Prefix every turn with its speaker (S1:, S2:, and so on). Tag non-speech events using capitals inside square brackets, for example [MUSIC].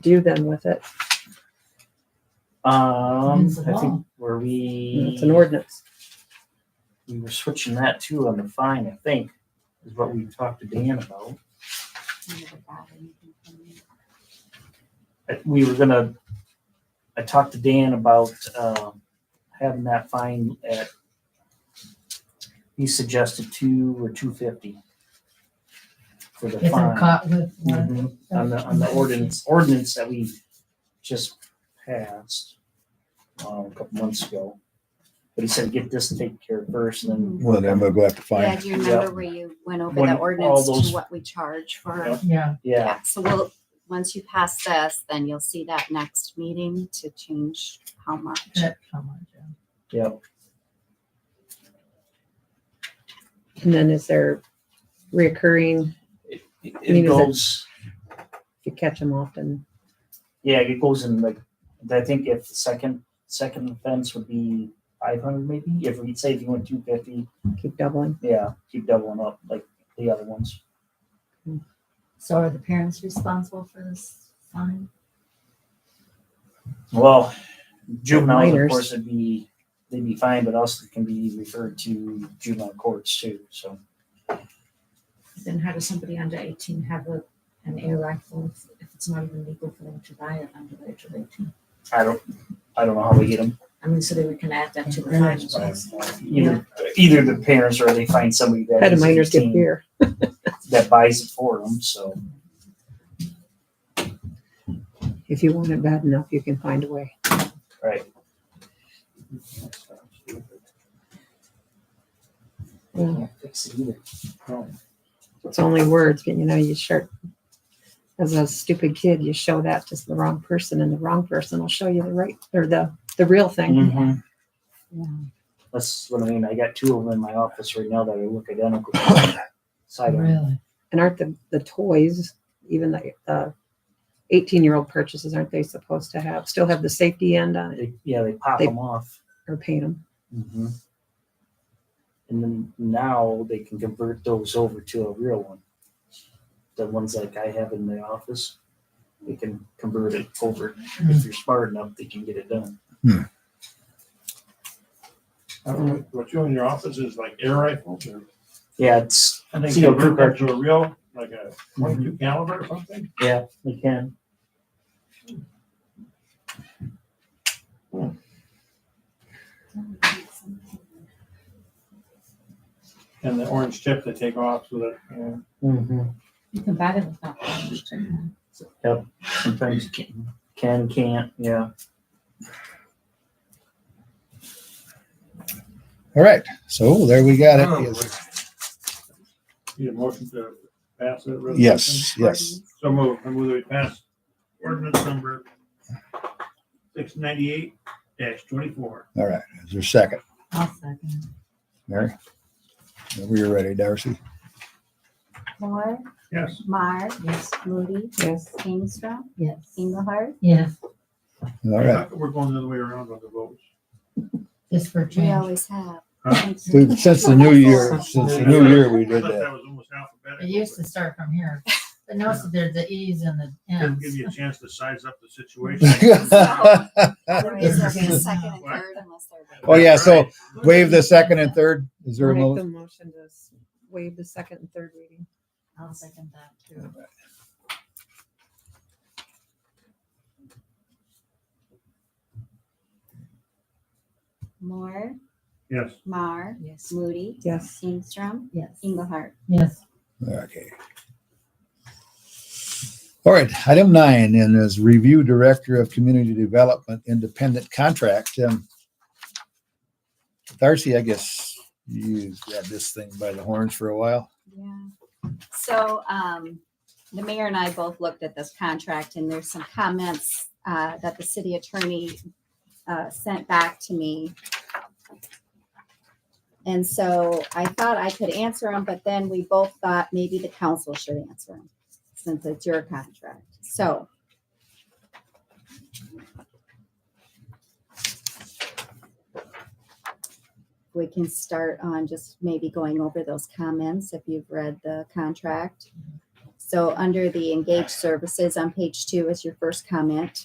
S1: do then with it?
S2: Um,
S3: It's a
S2: I think
S3: law.
S2: where we
S1: It's an ordinance.
S2: we were switching that too on the fine. I think is what we talked to Dan about. I- We were gonna. I talked to Dan about um, having that fine at. He suggested two or two fifty. For the
S3: If they're
S2: fine.
S3: caught with uh, one.
S2: Mhm. On the, on the ordinance, ordinance that we just passed, um, a couple months ago. But he said, get this taken care of first
S3: Mm-hmm.
S2: and
S4: Well, then we'll go have to
S5: Yeah,
S4: find,
S5: do you remember where you went over
S2: When
S5: the
S2: all
S5: ordinance
S2: those-
S5: to what we charge for?
S3: Yeah,
S2: then, yeah,
S5: Yeah, so we'll, once you pass this, then you'll see that next meeting to change how much.
S3: that's how much, yeah.
S2: yeah.
S1: And then is there reoccurring,
S2: It- It
S1: I mean, is
S2: it
S1: it-
S2: goes,
S1: if you catch them often?
S2: yeah, it goes in like, I think if the second, second offense would be five hundred maybe, if we say if you went two fifty,
S1: Keep doubling.
S2: yeah, keep doubling up like the other ones.
S3: So are the parents responsible for this fine?
S2: Well, juveniles, of
S1: Minors.
S2: course, would be, they'd be fine, but also can be referred to juvenile courts too, so.
S6: Then how does somebody under eighteen have a, an air rifle if- if it's not even legal for them to buy it under the age of eighteen?
S2: I don't, I don't know how we get them
S6: I mean, so that we can add that to the
S3: Yeah.
S6: fine as well.
S2: Either, either the parents or they find somebody that
S1: How do
S2: is
S1: minors get
S2: 18
S1: beer?
S2: that buys it for them. So
S1: If you want it bad enough, you can find a way.
S2: right,
S1: Well,
S2: can't fix it either. No.
S1: It's only words, but you know, you sure, as a stupid kid, you show that to the wrong person and the wrong person will show you the right, or the, the real thing.
S2: Mhm.
S1: Yeah.
S2: That's what I mean. I got two of them in my office right now that are look identical.
S1: [COUGHS]
S2: Side on.
S3: Really?
S1: And aren't the, the toys, even the, uh, eighteen-year-old purchases, aren't they supposed to have, still have the safety end on it
S2: They, yeah, they pop
S1: They-
S2: them off.
S1: or paint them?
S2: Mm-hmm. And then now they can convert those over to a real one. The ones like I have in the office, they can convert it over. If you're smart enough, they can get it done.
S7: I don't know, What you in your office is like air rifles or?
S2: Yeah, it's
S7: And
S2: they
S7: they
S2: can
S7: convert
S2: convert
S7: that to a real, like a twenty-two caliber or something?
S2: yeah, they can.
S7: And the orange tip they take off so that, you know,
S2: Mm-hmm.
S6: You can buy them without fines too.
S2: Sometimes can, can, can't. Yeah.
S4: all right, so there we got
S8: Oh,
S4: it.
S7: need a motion to pass that resolution.
S4: Yes, yes.
S7: So move, I move that we pass ordinance number six ninety-eight dash twenty-four.
S4: All right, is there a second?
S3: I'll second.
S4: Mary? We are ready, Darcy.
S5: Moore,
S7: Yes.
S5: Mar,
S6: Yes.
S5: Moody,
S1: Yes.
S5: Kingstrom,
S3: Yes.
S5: Engelhardt,
S3: Yes,
S4: All right,
S7: We're going the other way around on the votes.
S3: just for
S5: we
S3: change.
S5: always have.
S7: Huh?
S4: We've- since the new year, since the new year, we
S7: I
S4: did
S7: thought
S4: that.
S7: was almost alphabetical.
S3: It used to start from here, but notice that there's the E's and the
S7: Didn't give
S3: N's.
S7: you a chance to size
S4: [LAUGHS]
S7: up the situation.
S3: [LAUGHS]
S5: Always have
S3: Yes.
S5: a Second and third unless they're.
S4: Oh, yeah, so
S7: Right.
S4: waive the second and third. Is there a
S1: Make the
S4: mo-
S1: motion to s- waive the second and third reading.
S3: I'll second that too.
S5: Moore,
S7: Yes.
S5: Mar,
S6: Yes.
S5: Moody,
S1: Yes.
S5: Kingstrom,
S3: Yes.
S5: Engelhardt.
S3: Yes.
S4: Okay. All right, item nine, and as review director of community development, independent contract. um, Darcy, I guess you grabbed this thing by the horns for a while.
S5: Yeah. So um, the mayor and I both looked at this contract and there's some comments uh, that the city attorney uh, sent back to me. And so I thought I could answer them, but then we both thought maybe the council should answer them since it's your contract. So. We can start on just maybe going over those comments if you've read the contract. So under the engaged services on page two is your first comment.